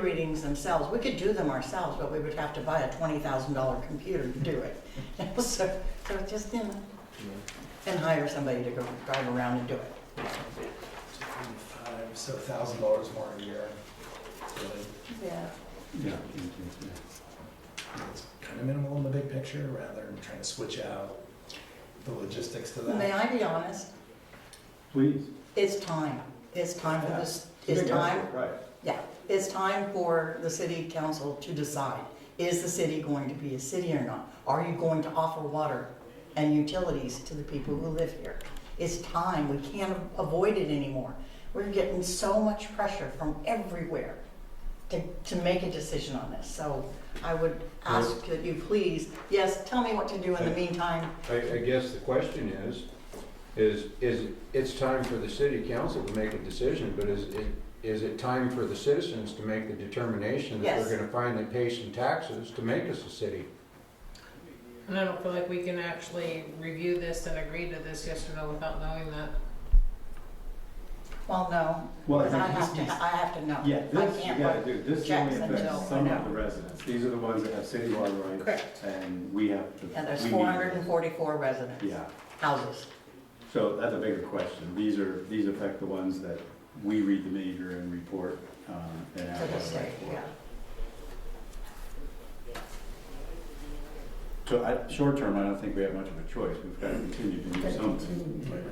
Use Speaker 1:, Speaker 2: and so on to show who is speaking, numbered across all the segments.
Speaker 1: readings themselves, we could do them ourselves, but we would have to buy a twenty thousand dollar computer to do it. So, so just, you know, and hire somebody to go drive around and do it.
Speaker 2: Five, So thousand dollars more a year. Really,
Speaker 1: Yeah.
Speaker 3: Yeah.
Speaker 2: It's kind of minimal in the big picture, rather than trying to switch out the logistics to
Speaker 1: May
Speaker 2: that.
Speaker 1: I be honest?
Speaker 3: Please.
Speaker 1: It's time. It's time for this, it's
Speaker 3: Big
Speaker 1: time,
Speaker 3: effort, Right.
Speaker 1: yeah, it's time for the city council to decide. Is the city going to be a city or not? Are you going to offer water and utilities to the people who live here? It's time. We can't avoid it anymore. We're getting so much pressure from everywhere to, to make a decision on this. So I would ask that you please, yes, tell me what to do in the meantime.
Speaker 4: I, I guess the question is, is, is, it's time for the city council to make a decision, but is it, is it time for the citizens to make the determination that
Speaker 1: Yes.
Speaker 4: we're gonna finally pay some taxes to make us a city?
Speaker 5: And I don't feel like we can actually review this and agree to this yes or no without knowing that.
Speaker 1: Well, no,
Speaker 3: Well, I
Speaker 1: because I
Speaker 3: think
Speaker 1: have
Speaker 3: this
Speaker 1: to,
Speaker 3: needs,
Speaker 1: I have to know.
Speaker 3: yeah,
Speaker 1: I
Speaker 3: this, you
Speaker 1: can't
Speaker 3: gotta
Speaker 1: vote.
Speaker 3: do, this
Speaker 1: checks
Speaker 3: only
Speaker 1: until
Speaker 3: affects
Speaker 1: I
Speaker 3: some
Speaker 1: know.
Speaker 3: of the residents. These are the ones that have city water rights.
Speaker 1: Correct.
Speaker 3: And we have to.
Speaker 1: And there's
Speaker 3: we need-
Speaker 1: four hundred and forty-four residents.
Speaker 3: Yeah,
Speaker 1: Houses.
Speaker 3: so that's a bigger question. These are, these affect the ones that we read the major and report, um, and
Speaker 1: To
Speaker 3: have
Speaker 1: the
Speaker 3: water
Speaker 1: state,
Speaker 3: right
Speaker 1: yeah.
Speaker 3: for. So I, short term, I don't think we have much of a choice. We've got to continue to do something.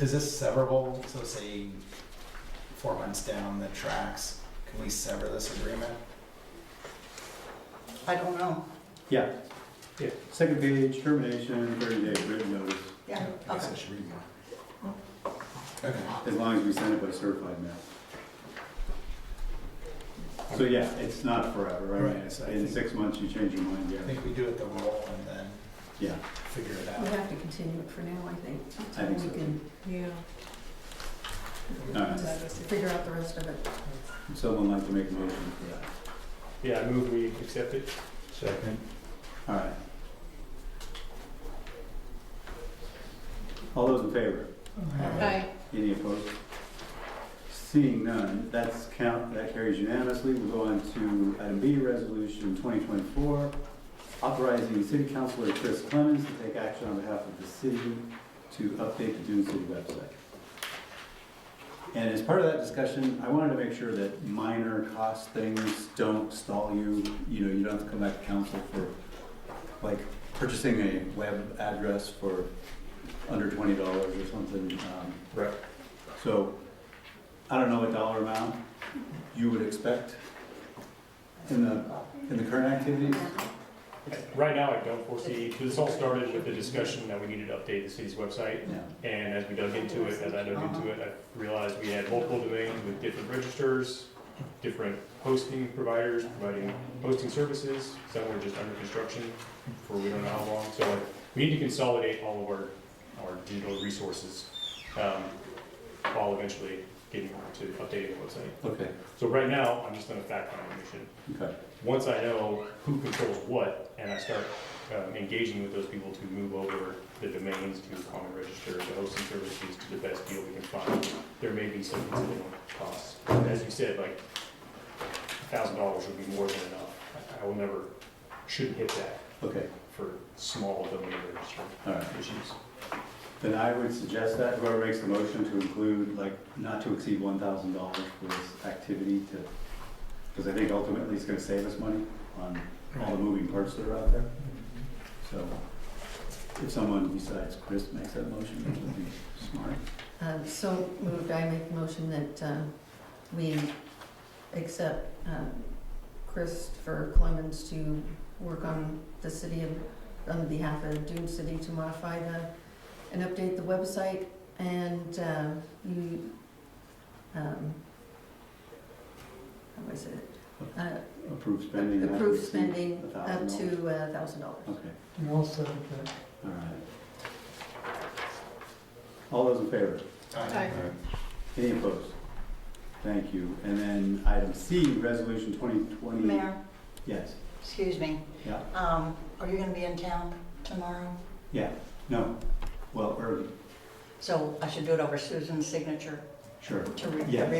Speaker 2: Is this severable? So say four months down the tracks, can we sever this agreement?
Speaker 1: I don't know.
Speaker 3: Yeah. Yeah. Second page, termination, thirty day written notice,
Speaker 1: Yeah,
Speaker 2: I guess I
Speaker 1: okay.
Speaker 2: should read more. Okay,
Speaker 3: as long as we send it by certified mail. So yeah, it's not forever, right?
Speaker 2: Right, so I
Speaker 3: In
Speaker 2: think-
Speaker 3: six months, you change your mind,
Speaker 2: I
Speaker 3: yeah.
Speaker 2: think we do it the roll and then
Speaker 3: Yeah,
Speaker 2: figure it
Speaker 6: We
Speaker 2: out.
Speaker 6: have to continue it for now, I think,
Speaker 3: I think
Speaker 6: until
Speaker 3: so.
Speaker 6: we can
Speaker 5: Yeah.
Speaker 3: All right.
Speaker 5: That is-
Speaker 6: figure out the rest of it.
Speaker 3: Would Someone like to make a motion for that?
Speaker 7: Yeah, I move we accept it.
Speaker 4: Second.
Speaker 3: All right. All those in favor?
Speaker 5: Aye.
Speaker 3: Any opposed? Seeing none, that's count, that carries unanimously. We'll go on to item B, resolution twenty twenty-four, authorizing city councilor Chris Clemens to take action on behalf of the city to update the Dune City website. And as part of that discussion, I wanted to make sure that minor cost things don't stall you. You know, you don't have to come back to council for, like, purchasing a web address for under twenty dollars or something. Um,
Speaker 4: Right.
Speaker 3: so, I don't know what dollar amount you would expect in the, in the current activities?
Speaker 7: Right now, I don't foresee, this all started with the discussion that we needed to update the city's website.
Speaker 3: Yeah,
Speaker 7: And as we dug into it, as I dug into it, I realized we had multiple domains with different registers, different hosting providers providing hosting services. Some were just under construction for we don't know how long. So we need to consolidate all of our, our digital resources, um, while eventually getting to updating the website.
Speaker 3: okay,
Speaker 7: So right now, I'm just on a fact-finding mission.
Speaker 3: okay,
Speaker 7: once I know who controls what, and I start um, engaging with those people to move over the domains to common register, the hosting services to the best deal we can find, there may be some incidental costs. As you said, like, thousand dollars would be more than enough. I- I will never, shouldn't hit that
Speaker 3: okay,
Speaker 7: for small domain register
Speaker 3: all right.
Speaker 7: issues.
Speaker 3: Then I would suggest that whoever makes the motion to include, like, not to exceed one thousand dollars for this activity to, because I think ultimately it's gonna save us money on all the moving parts that are out there. So, if someone besides Chris makes that motion, that would be smart.
Speaker 6: Um, So moved, I make the motion that uh, we accept um, Christopher Clemens to work on the city of, on behalf of Dune City to modify the, and update the website, and uh, you, um, how was it? Uh,
Speaker 3: Approve spending. not to
Speaker 6: Approve
Speaker 3: exceed
Speaker 6: spending up
Speaker 3: $1,000.
Speaker 6: to a thousand dollars.
Speaker 3: Okay. All right. All those in favor?
Speaker 2: Aye.
Speaker 3: Any opposed? Thank you. And then item C, resolution 2020.
Speaker 1: Mayor,
Speaker 3: Yes.
Speaker 1: excuse me.
Speaker 3: Yeah.
Speaker 1: Um, are you gonna be in town tomorrow?
Speaker 3: No. Well, early.
Speaker 1: So I should do it over Susan's signature
Speaker 3: Sure.
Speaker 1: to re-
Speaker 3: Yes.